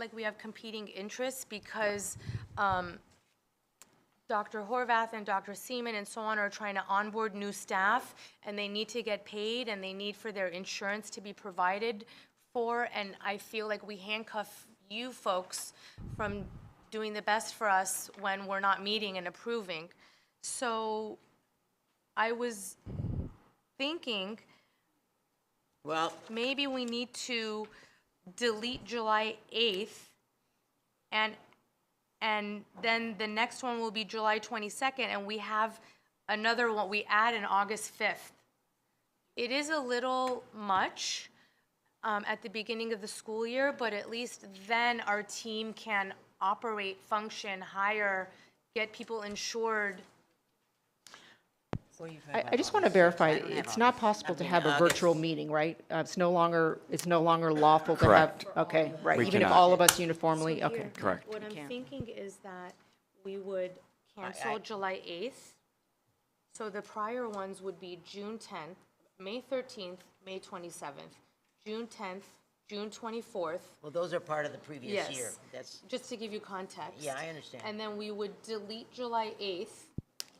like we have competing interests because um, Dr. Horvath and Dr. Seaman and so on are trying to onboard new staff, and they need to get paid, and they need for their insurance to be provided for, and I feel like we handcuff you folks from doing the best for us when we're not meeting and approving. So I was thinking Well, maybe we need to delete July 8th, and, and then the next one will be July 22nd, and we have another one, we add an August 5th. It is a little much um, at the beginning of the school year, but at least then our team can operate, function, hire, get people insured. I, I just want to verify, it's not possible to have a virtual meeting, right? Uh, It's no longer, it's no longer lawful to have, Correct. okay, right, We even if cannot. all of us uniformly, okay. Here, Correct. What I'm thinking is that we would cancel July 8th. So the prior ones would be June 10th, May 13th, May 27th, June 10th, June 24th. well, those are part of the previous Yes. year. That's, Just to give you context. Yeah, I understand. And then we would delete July 8th.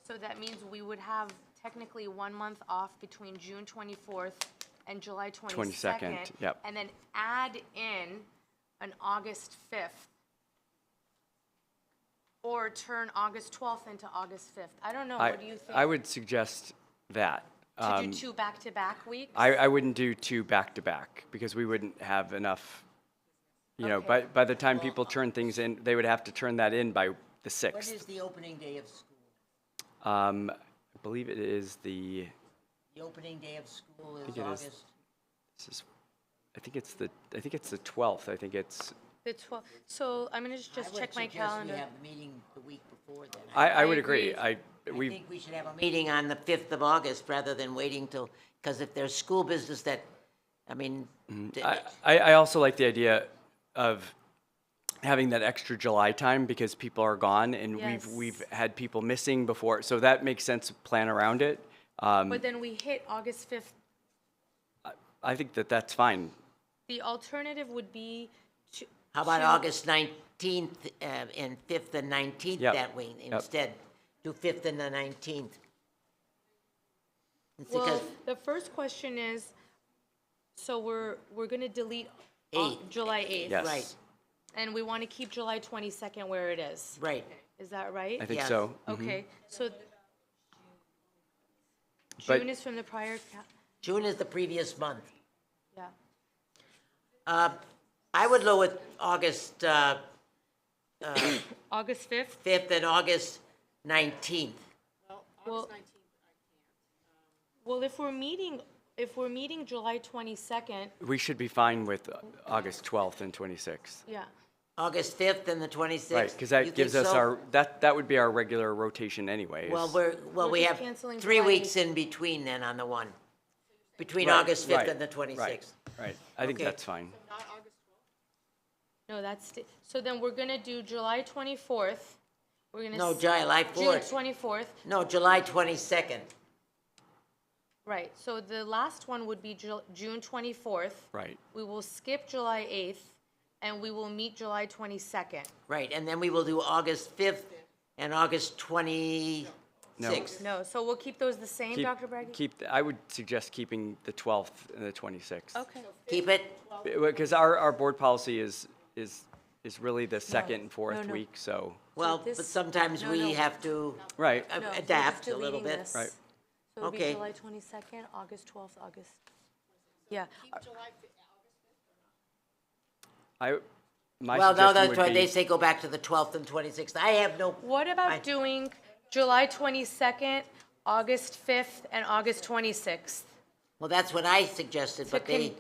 So that means we would have technically one month off between June 24th and July 22nd. 22nd, yep. And then add in an August 5th. Or turn August 12th into August 5th. I don't know, I, what do you think? I would suggest that. To do Um, two back-to-back weeks? I, I wouldn't do two back to back because we wouldn't have enough, you know, by, by the time people uh, turn things in, they would have to turn that in by the what is sixth. the opening day of school? Um, I believe it is the, The opening day of school is it is. August. this is- I think it's the, I think it's the twelfth. I think it's, The 12th, so I'm gonna just- just check my I calendar. would suggest we have a meeting the week before then. I, I I would agree. agree. I, I we, think we should have a meeting on the 5th of August rather than waiting till, because if there's school business that, I mean, th- Mm-hmm. I, I I also like the idea of having that extra July time because people are gone and Yes. we've, we've had people missing before. So that makes sense to plan around it. Um, But then we hit August 5th I think that that's fine. The alternative would be to. how about to- August 19th uh, and 5th and 19th Yep. that week Yep. instead? Do 5th and the 19th. It's Well, because the first question is, so we're, we're gonna delete Au- Eight. July 8th. Yes. Right. And we want to keep July 22nd where it is. Right. Is that right? I think Yes. so. mm-hmm. Okay, so But- June is from the prior, ca- June is the previous month. yeah. Uh, I would go with August uh, August 5th? 5th and August 19th. Well, Well, if we're meeting, if we're meeting July 22nd, We should be fine with uh, August 12th and 26th. yeah. August 5th and the 26th. Right, because You that gives think us so? our, that, that would be our regular rotation anyways. Well, we're, well, We're we just have canceling three July weeks in between then on the one, between Right, August 5th right, and the right, 26th. Right, I think Okay. that's fine. No, that's, the- so then we're gonna do July 24th. We're gonna. No, s- July June 4th. 24th, No, July 22nd. right. So the last one would be Ju- June 24th. Right. We will skip July 8th, and we will meet July 22nd. Right, and then we will do August 5th and August 26th. No, so we'll keep those the same, Keep- Dr. Bragg? Keep, I would suggest keeping the 12th and the 26th. Okay, Keep it? Because our, our board policy is, is, is really the second and no, fourth no. week, so, Well, but this- sometimes no, we no. have to right. a- No, so adapt just a little deleting bit. this. Right. so it'll be Okay. July 22nd, August 12th, August, yeah. I, my Well, no, suggestion that's why would they be, say go back to the 12th and 26th. I have no, What I- about doing July 22nd, August 5th, and August 26th? well, that's what I suggested, but they,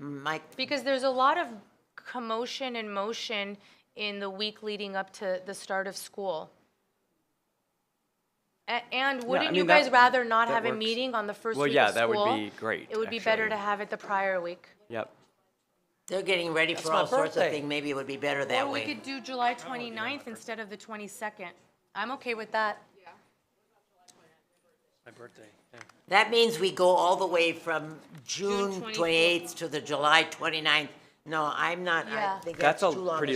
Mike, Because there's a lot of commotion and motion in the week leading up to the start of school. A- And wouldn't you mean, that- guys rather not that have a works. meeting on the first Well, week yeah, of that would school? be great, It would be better to actually. have it the prior week. yep, they're getting ready for my all sorts of birthday. things. Maybe it would be better that Or we way. could do July 29th instead of the 22nd. I'm okay with that. My birthday, yeah. That means we go all the way from June 24th. 28th to the July 29th. No, I'm not, I Yeah. think That's that's too a long. pretty